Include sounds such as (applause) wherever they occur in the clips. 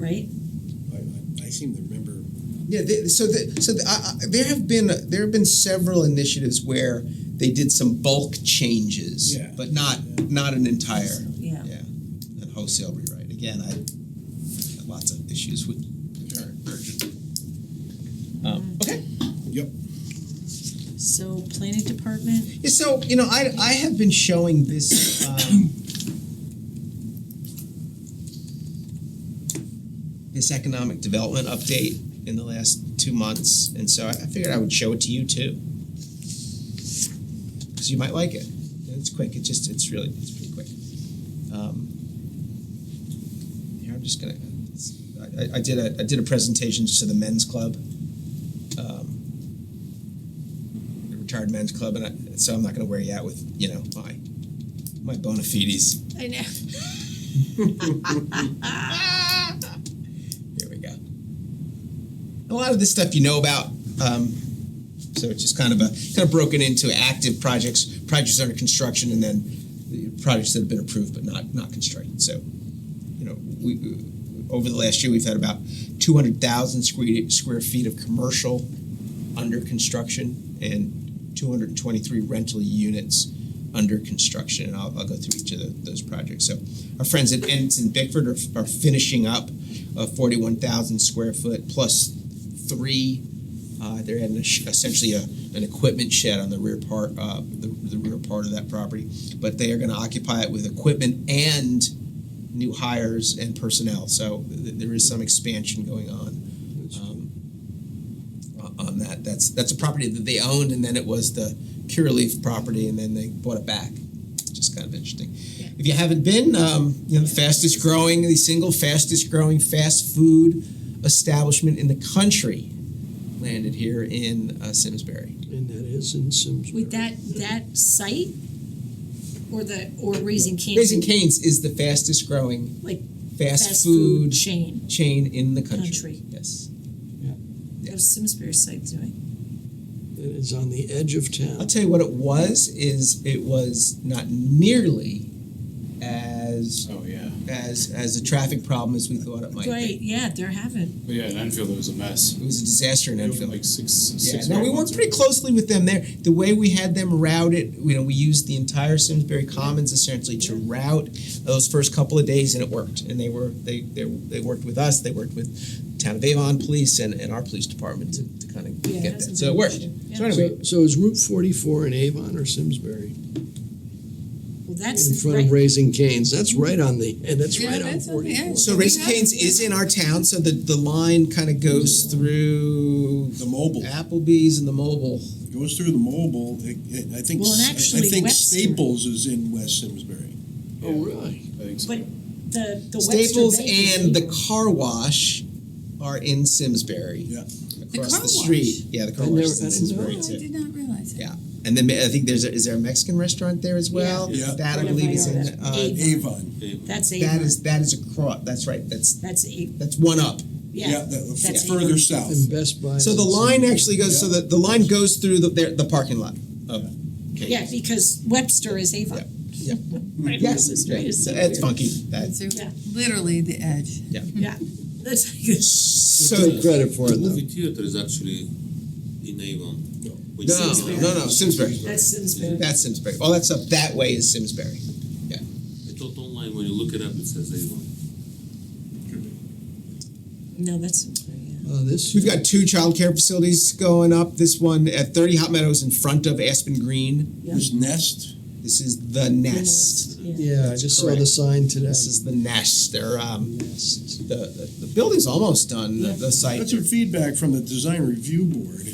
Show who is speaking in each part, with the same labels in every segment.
Speaker 1: right?
Speaker 2: I, I- I seem to remember.
Speaker 3: Yeah, they, so the, so the, I, I, there have been there have been several initiatives where they did some bulk changes,
Speaker 2: Yeah.
Speaker 3: but not not an entire
Speaker 1: Yeah.
Speaker 3: yeah, and wholesale rewrite. Again, I got lots of issues with the current version. Um, okay,
Speaker 2: Yep.
Speaker 1: So planning department,
Speaker 3: Yeah, so you know I I have been showing this. Um, This economic development update in the last two months, and so I I figured I would show it to you too. because you might like it. And it's quick. It's just it's really it's pretty quick. Um, here I'm just gonna. it's- I, I- I did a I did a presentation just to the men's club, um, the retired men's club, and I, so I'm not gonna wear you out with you know my my bona fides.
Speaker 1: I
Speaker 3: (laughs)
Speaker 1: know.
Speaker 3: Here we go. A lot of this stuff you know about. Um, so it's just kind of a kind of broken into active projects, projects under construction, and then the projects that have been approved but not not constructed. So, you know, we over the last year we've had about 200,000 square square feet of commercial under construction and 223 rental units under construction. And I'll, I'll go through each of tho- those projects. So our friends at Ensign Bickford are, are finishing up a 41,000 square foot plus three. Uh, they're adding a sh- essentially a, an equipment shed on the rear part, uh, the, the rear part of that property. But they are going to occupy it with equipment and new hires and personnel. So th- there is some expansion going on um, on that. That's that's a property that they owned, and then it was the Pure Leaf property, and then they bought it back. Just kind of interesting. If you haven't been, um, you know, the fastest growing, the single fastest growing fast food establishment in the country landed here in uh, Simsbury.
Speaker 4: And that is in Simsbury.
Speaker 1: With that that site or the or raising cane
Speaker 3: Raising Cane's is the fastest growing
Speaker 1: like
Speaker 3: fast,
Speaker 1: fast
Speaker 3: food,
Speaker 1: food chain.
Speaker 3: chain in the country.
Speaker 1: Country.
Speaker 3: Yes.
Speaker 1: That was Simsbury site doing.
Speaker 4: That is on the edge of
Speaker 3: I'll
Speaker 4: town.
Speaker 3: tell you what it was is it was not nearly as
Speaker 5: Oh yeah,
Speaker 3: as as a traffic problem as we thought it might
Speaker 1: Right,
Speaker 3: be.
Speaker 1: yeah, there haven't.
Speaker 5: but yeah, in Enfield it was a mess.
Speaker 3: It was a disaster in
Speaker 5: It was
Speaker 3: Enfield.
Speaker 5: like six,
Speaker 3: Yeah,
Speaker 5: six.
Speaker 3: no, we worked pretty closely with them there. The way we had them routed, you know, we used the entire Simsbury Commons essentially to route those first couple of days, and it worked. And they were they they, they worked with us. They worked with Town of Avon Police and, and our police department to, to kind of
Speaker 1: Yeah, it
Speaker 3: get that.
Speaker 1: hasn't
Speaker 3: So it
Speaker 1: been
Speaker 3: worked.
Speaker 1: much, yeah.
Speaker 3: So anyway,
Speaker 4: So, so is Route forty-four in Avon or Simsbury?
Speaker 1: Well that's
Speaker 4: In front of
Speaker 1: right.
Speaker 4: Raising Cane's, that's right on the, and that's
Speaker 6: Yeah,
Speaker 4: right on
Speaker 6: that's on the
Speaker 4: forty-four.
Speaker 6: edge.
Speaker 3: So Race Canes is in our town, so the, the line kind of goes through
Speaker 2: The mobile
Speaker 3: Applebee's and the mobile.
Speaker 2: It goes through the mobile. It, it, I think.
Speaker 1: Well, and
Speaker 2: I- I,
Speaker 1: actually
Speaker 2: think
Speaker 1: Webster-
Speaker 2: Staples is in West Simsbury.
Speaker 4: Oh, really?
Speaker 5: I think so.
Speaker 1: But the the
Speaker 3: Staples
Speaker 1: Webster Bank
Speaker 3: and the car wash are in Simsbury.
Speaker 2: Yeah.
Speaker 3: Across the,
Speaker 6: car
Speaker 3: street. Yeah, the car
Speaker 4: I
Speaker 3: wash
Speaker 4: never-
Speaker 3: is
Speaker 4: I
Speaker 3: in
Speaker 4: didn't
Speaker 3: Simsbury
Speaker 6: Oh, I
Speaker 3: too.
Speaker 6: did not realize that.
Speaker 3: Yeah. And then I think there's a, is there a Mexican restaurant there as well?
Speaker 2: Yeah. Yeah.
Speaker 3: That I
Speaker 1: Whatever
Speaker 3: believe is
Speaker 1: I
Speaker 3: in
Speaker 1: ordered.
Speaker 3: uh,
Speaker 1: Avon.
Speaker 2: Avon.
Speaker 1: that's a
Speaker 3: that is that is across that's right. That's
Speaker 1: that's a
Speaker 3: that's one up.
Speaker 1: yeah.
Speaker 2: that,
Speaker 1: that's
Speaker 2: further
Speaker 1: Avon.
Speaker 2: south.
Speaker 4: And Best Buy.
Speaker 3: So the line actually goes so that the line goes through the their, the parking lot. Oh, Of
Speaker 1: Yeah, because Webster is Avon.
Speaker 3: Yeah.
Speaker 1: (laughs) Right,
Speaker 3: Yes,
Speaker 1: this is
Speaker 3: yeah,
Speaker 1: right, it's so
Speaker 3: it's
Speaker 1: weird.
Speaker 3: funky. That's
Speaker 6: So
Speaker 1: Yeah.
Speaker 6: literally the edge.
Speaker 1: Yeah, that's like,
Speaker 3: so
Speaker 4: Take credit for
Speaker 7: The
Speaker 4: it though.
Speaker 7: movie theater is actually in Avon. which
Speaker 3: No,
Speaker 7: is-
Speaker 3: no, no, Simsbury.
Speaker 1: that's (laughs) Simsbury.
Speaker 3: That's Simsbury. All that stuff that way is Simsbury.
Speaker 7: I thought online when you look it up, it says Avon.
Speaker 1: No, that's Simsbury. Yeah.
Speaker 4: Uh, this,
Speaker 3: We've got two childcare facilities going up. This one at 30 Hot Meadows in front of Aspen Green.
Speaker 1: Yeah.
Speaker 2: There's Nest.
Speaker 3: This is the Nest.
Speaker 1: Yeah.
Speaker 4: yeah, I
Speaker 3: That's
Speaker 4: just saw
Speaker 3: correct.
Speaker 4: the sign today.
Speaker 3: This is the Nest. They're um,
Speaker 4: Yes.
Speaker 3: the, the the building's almost done. The, the site.
Speaker 2: That's our feedback from the design review board.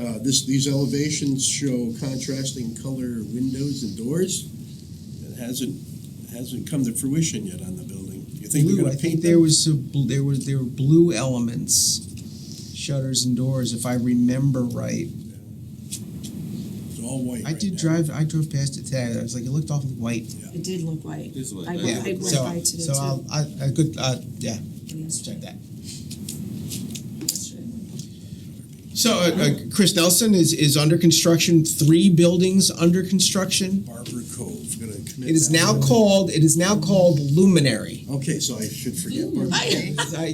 Speaker 2: Uh, this, these elevations show contrasting color windows and doors. It hasn't, hasn't come to fruition yet on the building. You think they're
Speaker 3: blue. I
Speaker 2: gonna
Speaker 3: think
Speaker 2: paint
Speaker 3: there
Speaker 2: them?
Speaker 3: was a, bl- there was there were blue elements, shutters and doors, if I remember right.
Speaker 2: It's all white
Speaker 3: I
Speaker 2: right
Speaker 3: did
Speaker 2: now.
Speaker 3: drive. I drove past it today. I was like, it looked awfully white.
Speaker 1: It did look white.
Speaker 7: It's white,
Speaker 1: I,
Speaker 7: yeah.
Speaker 1: went- I went
Speaker 3: so
Speaker 1: by today
Speaker 3: so
Speaker 1: too.
Speaker 3: I'll, I, I good. Uh, yeah, let's
Speaker 1: yesterday.
Speaker 3: check that.
Speaker 1: Yesterday.
Speaker 3: So, uh, uh, Chris Nelson is, is under construction, three buildings under construction.
Speaker 2: Barber Cove, gonna
Speaker 3: It
Speaker 2: commit.
Speaker 3: is
Speaker 2: that
Speaker 3: now
Speaker 2: one.
Speaker 3: called, it is now called Luminary.
Speaker 2: Okay, so I should forget. Barber Cove.
Speaker 3: I-